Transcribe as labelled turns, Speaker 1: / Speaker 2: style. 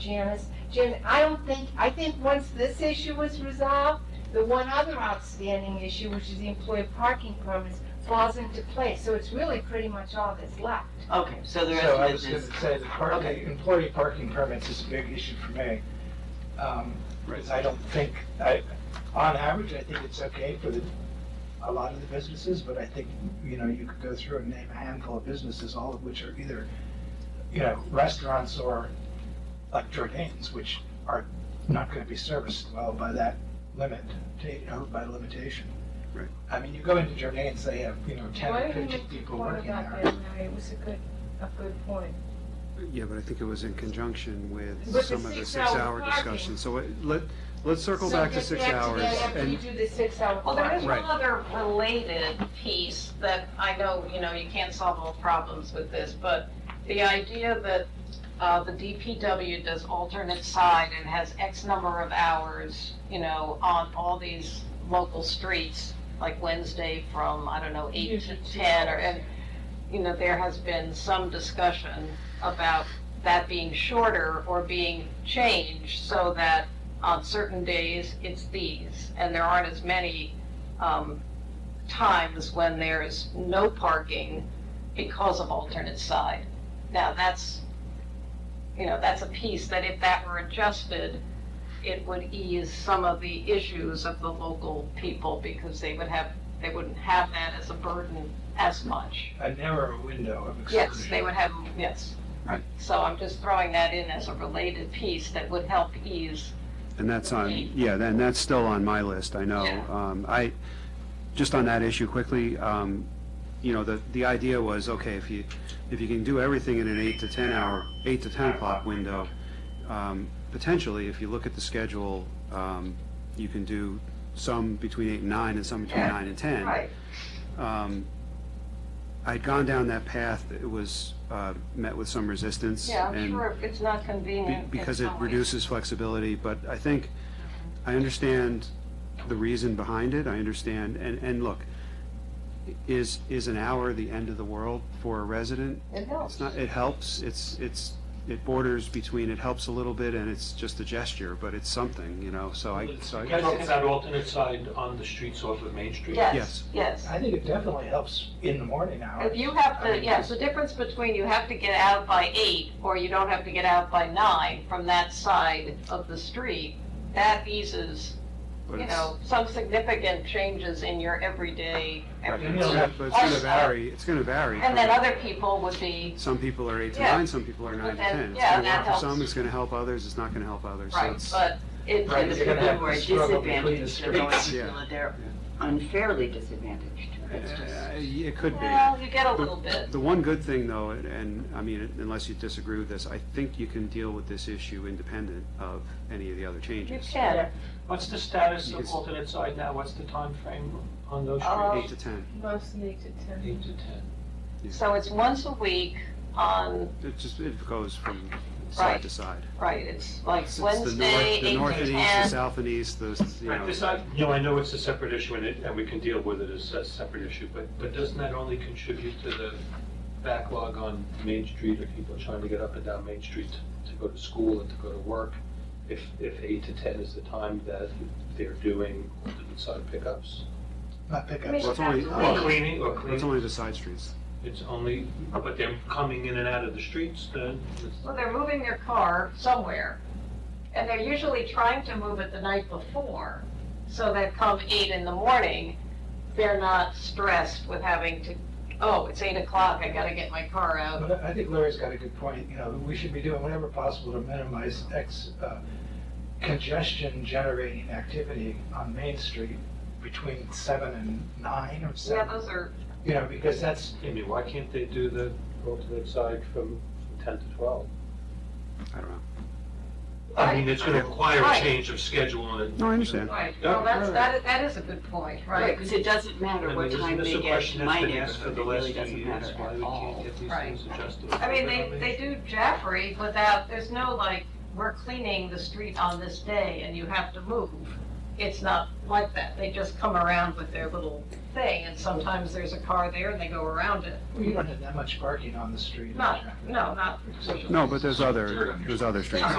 Speaker 1: Janice. Jan, I don't think, I think once this issue is resolved, the one other outstanding issue, which is the employee parking permits, falls into place. So it's really pretty much all that's left.
Speaker 2: Okay, so the
Speaker 3: So I
Speaker 2: rest of
Speaker 3: was
Speaker 2: it
Speaker 3: gonna
Speaker 2: is,
Speaker 3: say, the part,
Speaker 2: Okay.
Speaker 3: the employee parking permits is a big issue for me. Um, because I don't think, I, on average, I think it's okay for the, a lot of the businesses, but I think, you know, you could go through and name a handful of businesses, all of which are either, you know, restaurants or like Jordan's, which are not gonna be serviced well by that limit, you know, by limitation.
Speaker 4: Right.
Speaker 3: I mean, you go into Jordan's, they have, you know, ten
Speaker 1: Why
Speaker 3: or
Speaker 1: didn't you
Speaker 3: fifteen
Speaker 1: make the
Speaker 3: people
Speaker 1: point
Speaker 3: working there.
Speaker 1: about that, Mary? It was a good, a good point.
Speaker 4: Yeah, but I think it was in conjunction with
Speaker 1: the
Speaker 4: some of
Speaker 1: six-hour
Speaker 4: the six-hour
Speaker 1: parking.
Speaker 4: discussion. So it- let, let's circle back to six hours.
Speaker 1: So get back to that after you
Speaker 4: And
Speaker 1: do the six-hour
Speaker 5: Well, there is
Speaker 1: clock.
Speaker 5: one
Speaker 4: Right.
Speaker 5: other related piece that I know, you know, you can't solve all problems with this, but the idea that uh, the DPW does alternate side and has X number of hours, you know, on all these local streets, like Wednesday from, I don't know, eight to
Speaker 1: Usually two
Speaker 5: ten, or,
Speaker 1: hours.
Speaker 5: and, you know, there has been some discussion about that being shorter or being changed so that on certain days, it's these, and there aren't as many um, times when there's no parking because of alternate side. Now, that's, you know, that's a piece that if that were adjusted, it would ease some of the issues of the local people because they would have, they wouldn't have that as a burden as much.
Speaker 3: a narrow window of exclusion.
Speaker 5: Yes, they would have, yes.
Speaker 4: Right.
Speaker 5: So I'm just throwing that in as a related piece that would help ease
Speaker 4: and that's on, yeah, and that's still on my list, I know.
Speaker 5: Yeah.
Speaker 4: Um, I, just on that issue quickly, um, you know, the, the idea was, okay, if you, if you can do everything in an eight to 10 hour, eight to 10 o'clock window, um, potentially, if you look at the schedule, um, you can do some between eight and nine and some between nine and 10.
Speaker 5: Right.
Speaker 4: um, I'd gone down that path, it was, uh, met with some resistance.
Speaker 5: Yeah, I'm
Speaker 4: and
Speaker 5: sure it's not
Speaker 4: be-
Speaker 5: convenient.
Speaker 4: Because
Speaker 5: it's
Speaker 4: it
Speaker 5: always-
Speaker 4: reduces flexibility, but I think, I understand the reason behind it, I understand, and, and look, is, is an hour the end of the world for a resident?
Speaker 5: It
Speaker 4: It's
Speaker 5: helps.
Speaker 4: not, it helps, it's, it's, it borders between, it helps a little bit, and it's just a gesture, but it's something, you know, so I, so I,
Speaker 6: Because it's that alternate side on the streets off of Main Street.
Speaker 5: Yes,
Speaker 4: Yes.
Speaker 5: yes.
Speaker 3: I think it definitely helps in the morning hours.
Speaker 5: If you have to, yes, the difference between you have to get out by eight or you don't have to get out by nine from that side of the street, that eases,
Speaker 4: but
Speaker 5: you
Speaker 4: it's,
Speaker 5: know, some significant changes in your everyday.
Speaker 4: but
Speaker 3: You
Speaker 5: everyday.
Speaker 3: know,
Speaker 4: it's gonna
Speaker 5: Also-
Speaker 4: vary, it's gonna vary.
Speaker 5: And then
Speaker 4: from-
Speaker 5: other people would be,
Speaker 4: Some people are eight to
Speaker 5: Yeah.
Speaker 4: nine, some people are nine to
Speaker 5: then-
Speaker 4: ten. It's
Speaker 5: yeah,
Speaker 4: gonna
Speaker 5: that
Speaker 4: work for
Speaker 5: helps.
Speaker 4: some, it's gonna help others, it's not gonna help others. So
Speaker 5: right,
Speaker 4: it's-
Speaker 5: but it,
Speaker 3: Right,
Speaker 5: it's
Speaker 3: you're gonna have
Speaker 7: People who are
Speaker 3: to struggle between the
Speaker 7: disadvantaged, they're going to
Speaker 3: streets.
Speaker 7: feel that they're unfairly disadvantaged. It's just-
Speaker 4: Uh, It could
Speaker 5: well,
Speaker 4: be.
Speaker 5: you get a little bit.
Speaker 4: The one good thing though, and- and, I mean, unless you disagree with this, I think you can deal with this issue independent of any of the other
Speaker 5: You
Speaker 4: changes.
Speaker 5: can,
Speaker 6: What's the status
Speaker 4: Yes.
Speaker 6: of alternate side now? What's the time frame on those
Speaker 5: Uh,
Speaker 6: streets?
Speaker 4: Eight to ten,
Speaker 1: Mostly to ten.
Speaker 6: Eight to 10.
Speaker 5: so it's once a week on,
Speaker 4: it just, it goes from
Speaker 5: Right.
Speaker 4: side to side.
Speaker 5: right, it's like
Speaker 4: It's- it's the north-
Speaker 5: Wednesday,
Speaker 4: The
Speaker 5: eight
Speaker 4: north
Speaker 5: to
Speaker 4: and east, the
Speaker 5: ten.
Speaker 4: south and east, the, you
Speaker 6: Right,
Speaker 4: know.
Speaker 6: this, I, you know, I know it's a separate issue and it, and we can deal with it as a separate issue, but, but doesn't that only contribute to the backlog on Main Street of people trying to get up and down Main Street to go to school and to go to work? If, if eight to ten is the time that they're doing alternate side pickups?
Speaker 3: Not pickups.
Speaker 4: Well, it's only,
Speaker 6: Or
Speaker 4: well,
Speaker 6: cleaning, or
Speaker 4: it's
Speaker 6: cleaning,
Speaker 4: only the side streets.
Speaker 6: it's only, but they're coming in and out of the streets, then it's
Speaker 5: Well, they're moving their car somewhere, and they're usually trying to move it the night before, so that come eight in the morning, they're not stressed with having to, oh, it's eight o'clock, I gotta get my car out.
Speaker 3: But I I think Larry's got a good point, you know, we should be doing whatever possible to minimize ex, uh, congestion generating activity on Main Street between seven and nine or
Speaker 5: Yeah,
Speaker 3: seven.
Speaker 5: those are,
Speaker 3: You know, because that's,
Speaker 6: Amy, why can't they do the alternate side from ten to twelve?
Speaker 4: I don't know.
Speaker 6: I mean, it's gonna require a
Speaker 5: Right.
Speaker 6: change of schedule and.
Speaker 4: No, I understand.
Speaker 5: right, well, that's, that, that is a good point,
Speaker 7: Right,
Speaker 5: right?
Speaker 7: because it doesn't matter
Speaker 6: I
Speaker 7: what
Speaker 6: mean, isn't
Speaker 7: time
Speaker 6: this
Speaker 7: they
Speaker 6: a
Speaker 7: get
Speaker 6: question
Speaker 7: to
Speaker 6: that's
Speaker 7: my
Speaker 6: been asked for
Speaker 7: neighborhood,
Speaker 6: the
Speaker 7: it really
Speaker 6: last few
Speaker 7: doesn't
Speaker 6: years?
Speaker 7: matter
Speaker 6: Why
Speaker 7: at
Speaker 6: we
Speaker 7: all.
Speaker 6: can't get these
Speaker 5: Right.
Speaker 6: things adjusted?
Speaker 5: I mean, they, they do Jaffrey without, there's no like, we're cleaning the street on this day and you have to move. It's not like that. They just come around with their little thing and sometimes there's a car there and they go around it.
Speaker 3: you don't have that much parking on the street.
Speaker 5: Not, no, not.
Speaker 4: No, but there's other, there's other streets.